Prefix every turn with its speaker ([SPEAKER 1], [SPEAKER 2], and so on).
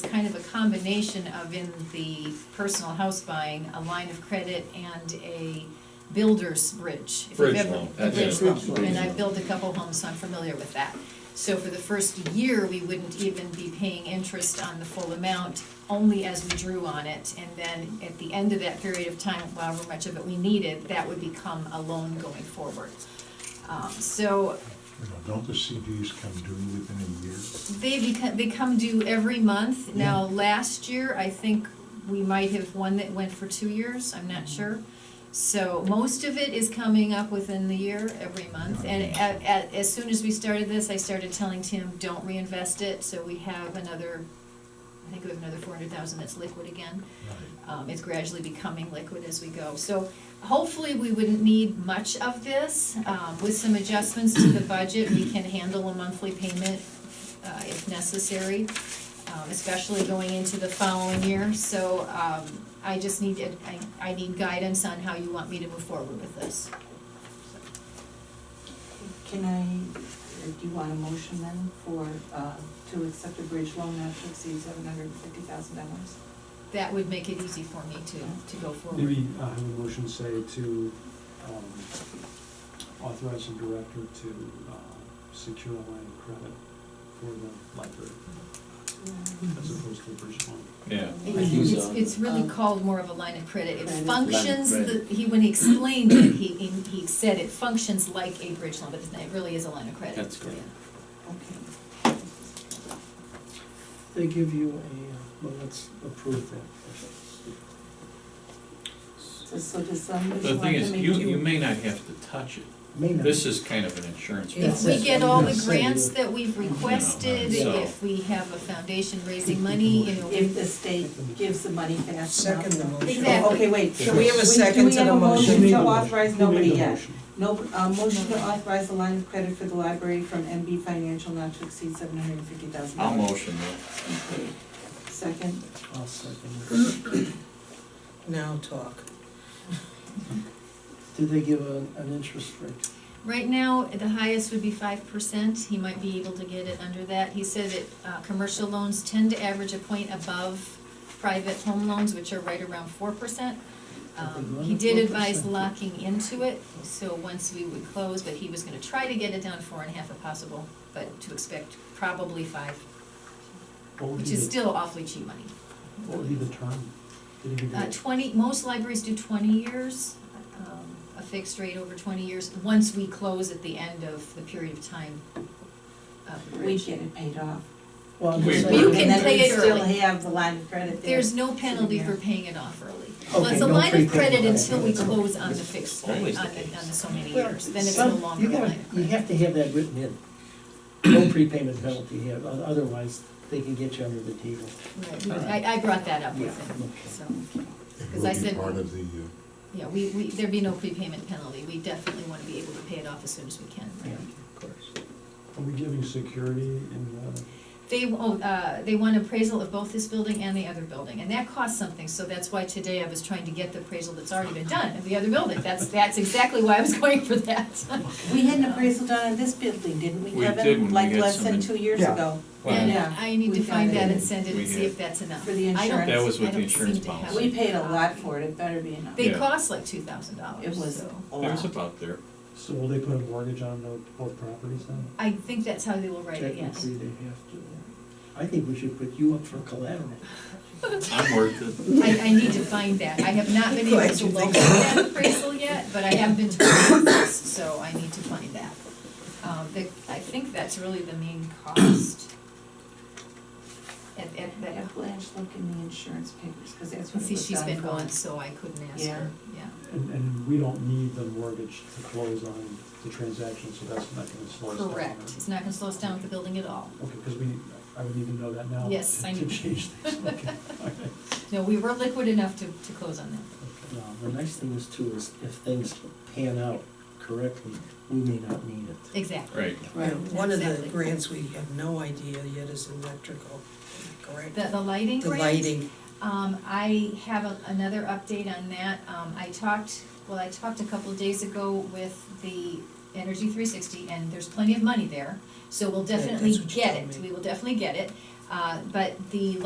[SPEAKER 1] kind of a combination of in the personal house buying, a line of credit and a builder's bridge. if you've
[SPEAKER 2] Bridge
[SPEAKER 1] ever-
[SPEAKER 2] loan.
[SPEAKER 1] a bridge
[SPEAKER 2] Yeah,
[SPEAKER 1] loan.
[SPEAKER 2] bridge loan.
[SPEAKER 1] and I've built a couple homes, so I'm familiar with that. So for the first year, we wouldn't even be paying interest on the full amount, only as we drew on it. And then at the end of that period of time, however much of it we needed, that would become a loan going forward. Um, So
[SPEAKER 3] You know, Don't the CDs come due within a year?
[SPEAKER 1] They become, they come due every month. Now, last year, I think we might have one that went for two years, I'm not sure. So most of it is coming up within the year, every month. And a a as soon as we started this, I started telling Tim, don't reinvest it, so we have another, I think we have another four hundred thousand that's liquid again. Um, it's gradually becoming liquid as we go. So hopefully, we wouldn't need much of this. Um, with some adjustments to the budget, we can handle a monthly payment, uh, if necessary, um, especially going into the following year. So, um, I just need, it- I, I need guidance on how you want me to move forward with this.
[SPEAKER 4] Can I, or do you want a motion then for, uh, to accept a bridge loan not to exceed seven hundred and fifty thousand dollars?
[SPEAKER 1] That would make it easy for me to, to go forward.
[SPEAKER 5] Maybe uh, have a motion say to um, authorize the director to uh, secure a line of credit for the library
[SPEAKER 4] Mm-hmm.
[SPEAKER 5] as opposed to a bridge loan.
[SPEAKER 2] Yeah.
[SPEAKER 1] It-
[SPEAKER 2] I think
[SPEAKER 1] It's,
[SPEAKER 2] so.
[SPEAKER 1] it's really
[SPEAKER 4] Um,
[SPEAKER 1] called more of a line of credit. It
[SPEAKER 4] Line of-
[SPEAKER 1] functions,
[SPEAKER 2] Line of
[SPEAKER 1] the- he, when he explained it, he, he he said it functions like a bridge loan, but it's not- it really is a line of credit.
[SPEAKER 2] That's correct.
[SPEAKER 4] Okay.
[SPEAKER 6] They give you a, uh, well, let's approve that first.
[SPEAKER 4] So, so does somebody
[SPEAKER 2] The
[SPEAKER 4] want
[SPEAKER 2] thing
[SPEAKER 4] to
[SPEAKER 2] is,
[SPEAKER 4] make
[SPEAKER 2] you,
[SPEAKER 4] you?
[SPEAKER 2] you may not have to touch it.
[SPEAKER 6] May not.
[SPEAKER 2] This is kind of an insurance.
[SPEAKER 6] Yeah.
[SPEAKER 1] If
[SPEAKER 2] policy.
[SPEAKER 1] we
[SPEAKER 6] That's
[SPEAKER 1] get
[SPEAKER 6] what I'm
[SPEAKER 1] all
[SPEAKER 6] gonna
[SPEAKER 1] the
[SPEAKER 6] say,
[SPEAKER 1] grants
[SPEAKER 6] yeah.
[SPEAKER 1] that we've requested,
[SPEAKER 2] Yeah.
[SPEAKER 1] if we have a foundation raising money, you know,
[SPEAKER 4] If the state gives the money fast enough.
[SPEAKER 7] Second the motion.
[SPEAKER 1] Exactly.
[SPEAKER 4] Okay, wait, so
[SPEAKER 7] Do we have a
[SPEAKER 4] wait,
[SPEAKER 7] second to the motion?
[SPEAKER 4] Do we
[SPEAKER 5] Who made
[SPEAKER 4] have a motion to
[SPEAKER 5] the motion?
[SPEAKER 4] authorize,
[SPEAKER 5] Who made
[SPEAKER 4] nobody
[SPEAKER 5] the
[SPEAKER 4] yet?
[SPEAKER 5] motion?
[SPEAKER 4] No, uh, motion to authorize the line of credit for the library from MB Financial not to exceed seven hundred and fifty thousand
[SPEAKER 2] I'll
[SPEAKER 4] dollars.
[SPEAKER 2] motion that.
[SPEAKER 4] Second,
[SPEAKER 6] I'll second.
[SPEAKER 7] Now talk.
[SPEAKER 6] Did they give an, an interest rate?
[SPEAKER 1] Right now, the highest would be five percent, he might be able to get it under that. He said that, uh, commercial loans tend to average a point above private home loans, which are right around four percent. Um, he did advise
[SPEAKER 6] 4%.
[SPEAKER 1] locking into it, so once we would close, but he was gonna try to get it down to four and a half if possible, but to expect probably five,
[SPEAKER 5] What would
[SPEAKER 1] which
[SPEAKER 5] be
[SPEAKER 1] is
[SPEAKER 5] the-
[SPEAKER 1] still awfully cheap money.
[SPEAKER 5] What would be the term? Did he give you
[SPEAKER 1] Uh,
[SPEAKER 6] Mm-hmm.
[SPEAKER 5] a-
[SPEAKER 1] twenty, most libraries do twenty years, um, a fixed rate over twenty years, once we close at the end of the period of time of the
[SPEAKER 4] we
[SPEAKER 1] bridge.
[SPEAKER 4] get it paid off.
[SPEAKER 6] Well, I'm
[SPEAKER 2] Wait,
[SPEAKER 6] saying- uh,
[SPEAKER 1] You can pay it
[SPEAKER 4] And then we
[SPEAKER 1] early.
[SPEAKER 4] still have the line of credit there.
[SPEAKER 1] There's no penalty for paying it off early. Well,
[SPEAKER 6] Okay,
[SPEAKER 1] it's a
[SPEAKER 6] no
[SPEAKER 1] line of
[SPEAKER 6] prepayment.
[SPEAKER 1] credit until we
[SPEAKER 6] That's all.
[SPEAKER 1] close on the fixed rate,
[SPEAKER 2] Always
[SPEAKER 1] on
[SPEAKER 2] the
[SPEAKER 1] the,
[SPEAKER 2] case.
[SPEAKER 1] on the so many
[SPEAKER 6] Well,
[SPEAKER 1] years, then it's no
[SPEAKER 6] some-
[SPEAKER 1] longer
[SPEAKER 6] you
[SPEAKER 1] a
[SPEAKER 6] gotta-
[SPEAKER 1] line of
[SPEAKER 6] You
[SPEAKER 1] credit.
[SPEAKER 6] have to have that written in. No prepayment penalty here, o- otherwise they can get you under the table.
[SPEAKER 1] Right, we- I, I brought that up with
[SPEAKER 6] Yeah,
[SPEAKER 1] him,
[SPEAKER 6] okay.
[SPEAKER 1] so,
[SPEAKER 3] It
[SPEAKER 1] Because I
[SPEAKER 3] will be
[SPEAKER 1] said-
[SPEAKER 3] part of the, uh,
[SPEAKER 1] yeah, we, we, there'd be no prepayment penalty, we definitely wanna be able to pay it off as soon as we can,
[SPEAKER 6] Yeah,
[SPEAKER 1] right?
[SPEAKER 6] of course.
[SPEAKER 5] Are we giving security in the?
[SPEAKER 1] They, oh, uh, they want appraisal of both this building and the other building, and that costs something, so that's why today I was trying to get the appraisal that's already been done of the other building, that's, that's exactly why I was going for that.
[SPEAKER 4] We had an appraisal done on this building, didn't we,
[SPEAKER 2] We
[SPEAKER 4] Kevin?
[SPEAKER 2] did when we
[SPEAKER 4] Like
[SPEAKER 2] had
[SPEAKER 4] less than
[SPEAKER 2] some-
[SPEAKER 4] two years
[SPEAKER 5] Yeah.
[SPEAKER 4] ago.
[SPEAKER 2] Well,
[SPEAKER 1] And I need to
[SPEAKER 4] We got
[SPEAKER 1] find
[SPEAKER 4] it.
[SPEAKER 1] that and send it
[SPEAKER 2] We
[SPEAKER 1] and see if
[SPEAKER 2] did.
[SPEAKER 1] that's enough.
[SPEAKER 4] For the
[SPEAKER 1] I don't-
[SPEAKER 4] insurance.
[SPEAKER 2] That was with
[SPEAKER 1] I
[SPEAKER 2] the
[SPEAKER 1] don't seem
[SPEAKER 2] insurance
[SPEAKER 1] to have
[SPEAKER 2] policy.
[SPEAKER 4] We paid a lot for it, it better be enough.
[SPEAKER 1] They
[SPEAKER 2] Yeah.
[SPEAKER 1] cost like two thousand dollars,
[SPEAKER 4] It was
[SPEAKER 1] so.
[SPEAKER 4] a
[SPEAKER 2] it was
[SPEAKER 4] lot.
[SPEAKER 2] about there.
[SPEAKER 5] So will they put a mortgage on tho- both properties then?
[SPEAKER 1] I think that's how they will write it, yes.
[SPEAKER 6] Technically, they have to. I think we should put you up for collateral.
[SPEAKER 2] I'm worth it.
[SPEAKER 1] I, I need to find that. I have not been able
[SPEAKER 7] Glad
[SPEAKER 1] to
[SPEAKER 7] you
[SPEAKER 1] locate
[SPEAKER 7] think
[SPEAKER 1] that appraisal yet, but I have been to this, so I need to find that. Um, the, I think that's really the main cost. At, at
[SPEAKER 4] But
[SPEAKER 1] that,
[SPEAKER 4] Blanche, look in the insurance papers, because that's what it
[SPEAKER 1] see,
[SPEAKER 4] was
[SPEAKER 1] she's
[SPEAKER 4] done
[SPEAKER 1] been
[SPEAKER 4] for.
[SPEAKER 1] gone, so I couldn't ask her, yeah.
[SPEAKER 5] And, and we don't need the mortgage to close on the transaction, so that's not gonna slow us down. right?
[SPEAKER 1] Correct. It's not gonna slow us down with the building at all.
[SPEAKER 5] Okay, because we, I would need to know that now.
[SPEAKER 1] Yes,
[SPEAKER 5] to-
[SPEAKER 1] I
[SPEAKER 5] To
[SPEAKER 1] know.
[SPEAKER 5] change things, okay. all right.
[SPEAKER 1] No, we were liquid enough to, to close on that.
[SPEAKER 6] Now, the next thing is too, is if things pan out correctly, we may not need it.
[SPEAKER 1] Exactly.
[SPEAKER 2] Right.
[SPEAKER 7] Right, one of the
[SPEAKER 1] Exactly.
[SPEAKER 7] grants we have no idea yet is electrical, correct?
[SPEAKER 1] The, the lighting
[SPEAKER 7] The
[SPEAKER 1] grant?
[SPEAKER 7] lighting,
[SPEAKER 1] Um, I have a- another update on that. Um, I talked, well, I talked a couple of days ago with the Energy three sixty, and there's plenty of money there, so we'll
[SPEAKER 7] Yeah, that's
[SPEAKER 1] definitely
[SPEAKER 7] what you
[SPEAKER 1] get
[SPEAKER 7] told
[SPEAKER 1] it,
[SPEAKER 7] me.
[SPEAKER 1] we will definitely get it. Uh, but the